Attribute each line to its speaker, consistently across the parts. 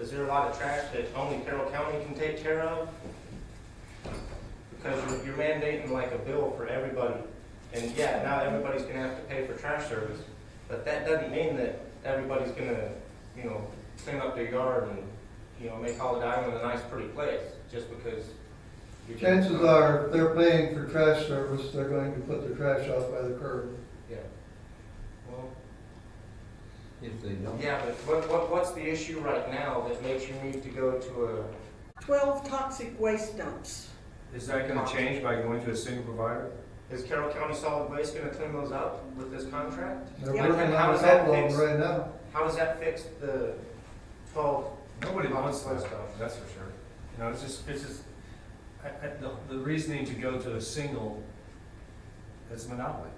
Speaker 1: Is there a lot of trash that only Carroll County can take care of? Because you're- you're mandating like a bill for everybody, and yeah, now everybody's gonna have to pay for trash service, but that doesn't mean that everybody's gonna, you know, clean up their yard and, you know, make Holiday Island a nice pretty place, just because. you're doing
Speaker 2: Chances
Speaker 1: something.
Speaker 2: are, if they're paying for trash service, they're going to put their trash out by the curb.
Speaker 1: Yeah. Well,
Speaker 3: If they don't.
Speaker 1: yeah, but what, what, what's the issue right now that makes you need to go to a?
Speaker 4: 12 toxic waste dumps.
Speaker 5: Is that gonna change by going to a single provider?
Speaker 1: Is Carroll County Solid Waste gonna clean those up with this contract?
Speaker 2: They're
Speaker 4: Yeah.
Speaker 2: working
Speaker 1: How
Speaker 2: on a
Speaker 1: does that
Speaker 2: couple of
Speaker 1: fix-
Speaker 2: them right now.
Speaker 1: How does that fix the twelve?
Speaker 5: Nobody wants that
Speaker 1: Lots of
Speaker 5: stuff, that's for sure. You know, it's just, it's just, I, I, the, the reasoning to go to a single, it's monopoly.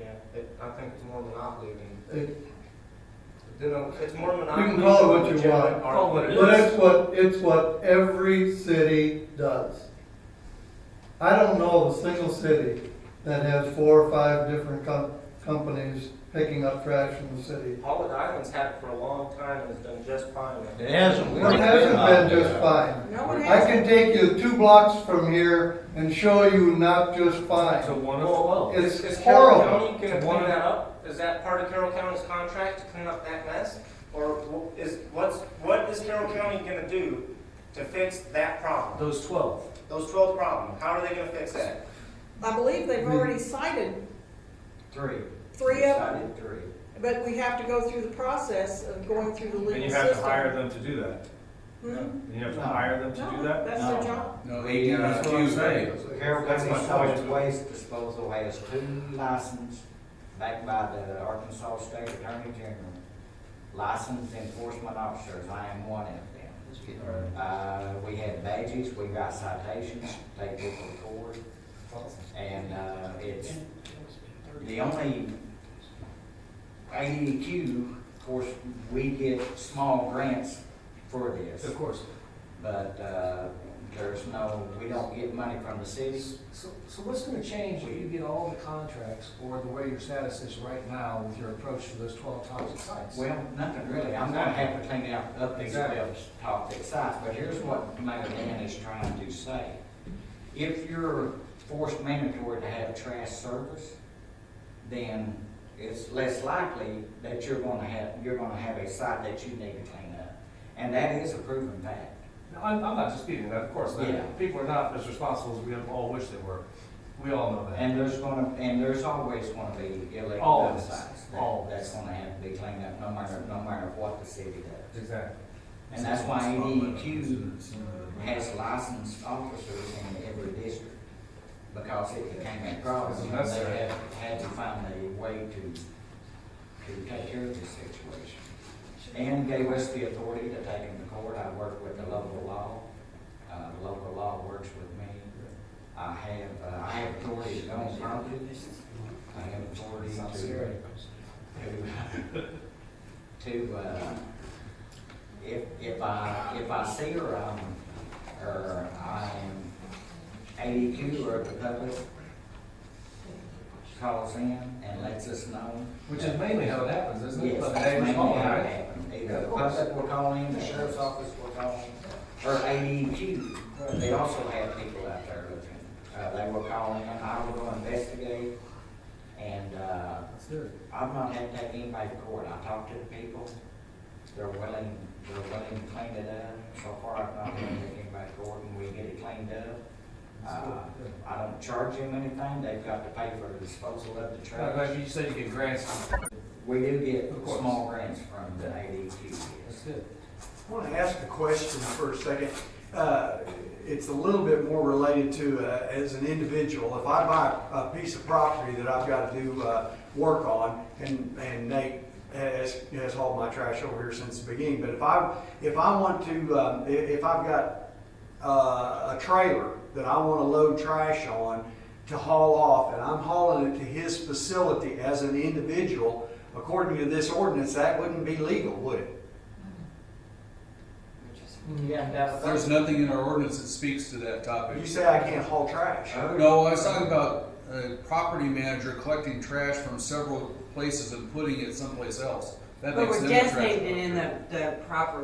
Speaker 1: Yeah, it, I think it's more monopoly than,
Speaker 2: It-
Speaker 1: you know, it's more monopoly.
Speaker 2: can call it what you
Speaker 1: than legitimate
Speaker 2: want.
Speaker 1: art.
Speaker 5: Call it what it
Speaker 2: But
Speaker 5: is.
Speaker 2: it's what, it's what every city does. I don't know of a single city that has four or five different com- companies picking up trash from the city.
Speaker 1: Holiday Island's had it for a long time and has done just fine. with it.
Speaker 3: It hasn't. we
Speaker 2: It
Speaker 3: don't
Speaker 2: hasn't
Speaker 3: have
Speaker 2: been uh, just fine.
Speaker 4: No one
Speaker 2: I
Speaker 4: has,
Speaker 2: can take you two blocks from here and show you not just fine.
Speaker 5: So one of
Speaker 1: Well,
Speaker 5: twelve.
Speaker 2: it-
Speaker 1: is, is
Speaker 2: It's
Speaker 1: Carroll
Speaker 2: horrible.
Speaker 1: County gonna
Speaker 5: It's one
Speaker 1: clean
Speaker 5: of-
Speaker 1: that up? Is that part of Carroll County's contract to clean up that mess? Or wh- is, what's, what is Carroll County gonna do to fix that problem?
Speaker 5: Those twelve.
Speaker 1: Those twelve problems, how are they gonna fix that?
Speaker 4: I believe they've
Speaker 5: Hmm.
Speaker 4: already cited
Speaker 3: Three.
Speaker 4: three of them,
Speaker 3: Decided Three.
Speaker 4: but we have to go through the process of going through the legal
Speaker 5: And
Speaker 4: system.
Speaker 5: you have to hire them to do that.
Speaker 4: Hmm?
Speaker 5: And you have to
Speaker 3: No.
Speaker 5: hire them to do
Speaker 4: No,
Speaker 5: that?
Speaker 4: that's
Speaker 3: No.
Speaker 4: their job.
Speaker 3: No, uh,
Speaker 5: They do, that's what I'm saying.
Speaker 3: Carroll
Speaker 5: That's
Speaker 3: County
Speaker 5: my point.
Speaker 3: Solid Waste Disposal has two licenses backed by the Arkansas State Attorney General. Licensed enforcement officers, I am one of them. Uh, we had badges, we got citations, they took the court, and, uh, it's, the only ADQ, of course, we get small grants for this.
Speaker 5: Of course.
Speaker 3: But uh, there's no, we don't get money from the city.
Speaker 6: So, so what's gonna change when you get all the contracts or the way your status is right now with your approach to those twelve toxic sites?
Speaker 3: Well, nothing really. I'm gonna have to clean out up these
Speaker 6: Exactly.
Speaker 3: bills, top six sites, but here's what Mayor Dan is trying to say. If you're forced mandatory to have trash service, then it's less likely that you're gonna have, you're gonna have a site that you need to clean up. And that is a proven fact.
Speaker 5: No, I'm, I'm not disputing that, of course. not.
Speaker 3: Yeah.
Speaker 5: People are not as responsible as we all wish they were. We all know that.
Speaker 3: And there's gonna, and there's always gonna be illegal
Speaker 5: Always.
Speaker 3: sites. that-
Speaker 5: Always.
Speaker 3: That's gonna have to be cleaned up, no matter, no matter what the city does.
Speaker 5: Exactly.
Speaker 3: And that's why ADQ has licensed officers in every district, because it became a problem. and
Speaker 5: That's
Speaker 3: They
Speaker 5: right.
Speaker 3: had, had to find a way to, to take care of this situation. And gave us the authority to take them to court. I work with the local law. Uh, the local law works with me. I have, uh, I have authority to own property. I have authority
Speaker 6: Sounds
Speaker 3: to,
Speaker 6: scary.
Speaker 3: to, to, uh, if, if I, if I see her, um, or I am ADQ or the public calls in and lets us know.
Speaker 5: Which is mainly how it happens, isn't it?
Speaker 3: Yes,
Speaker 5: But
Speaker 3: that's
Speaker 5: they
Speaker 3: mainly
Speaker 5: respond,
Speaker 3: how it
Speaker 5: right?
Speaker 3: happened.
Speaker 5: Yeah,
Speaker 3: Either the
Speaker 5: of course.
Speaker 3: public will call in, the sheriff's office will call in, or ADQ. They also have people out there looking. Uh, they will call in, I will go investigate, and, uh,
Speaker 5: That's it.
Speaker 3: I've not had to take anybody to court, I talked to the people, they're willing, they're willing to clean it up, so far I've not had to take anybody to court, and we get it cleaned up. Uh, I don't charge them anything, they've got to pay for the disposal of the
Speaker 5: Uh,
Speaker 3: trash.
Speaker 5: like you said, you get grants.
Speaker 3: We do get
Speaker 5: Of course.
Speaker 3: small grants from the ADQ, yes.
Speaker 5: That's good.
Speaker 7: I want to ask a question for a second. Uh, It's a little bit more related to, uh, as an individual, if I buy a piece of property that I've got to do uh, work on, and and Nate has has hauled my trash over here since the beginning, but if I, if I want to, um, i- if I've got uh, a trailer that I want to load trash on to haul off, and I'm hauling it to his facility as an individual, according to this ordinance, that wouldn't be legal, would it?
Speaker 8: There's nothing in our ordinance that speaks to that
Speaker 7: You
Speaker 8: topic.
Speaker 7: say I can't haul trash.
Speaker 8: No, I was talking about a property manager collecting trash from several places and putting it someplace else. That
Speaker 9: But
Speaker 8: makes
Speaker 9: we're
Speaker 8: them a trash
Speaker 9: designated in
Speaker 8: collector.
Speaker 9: the, the proper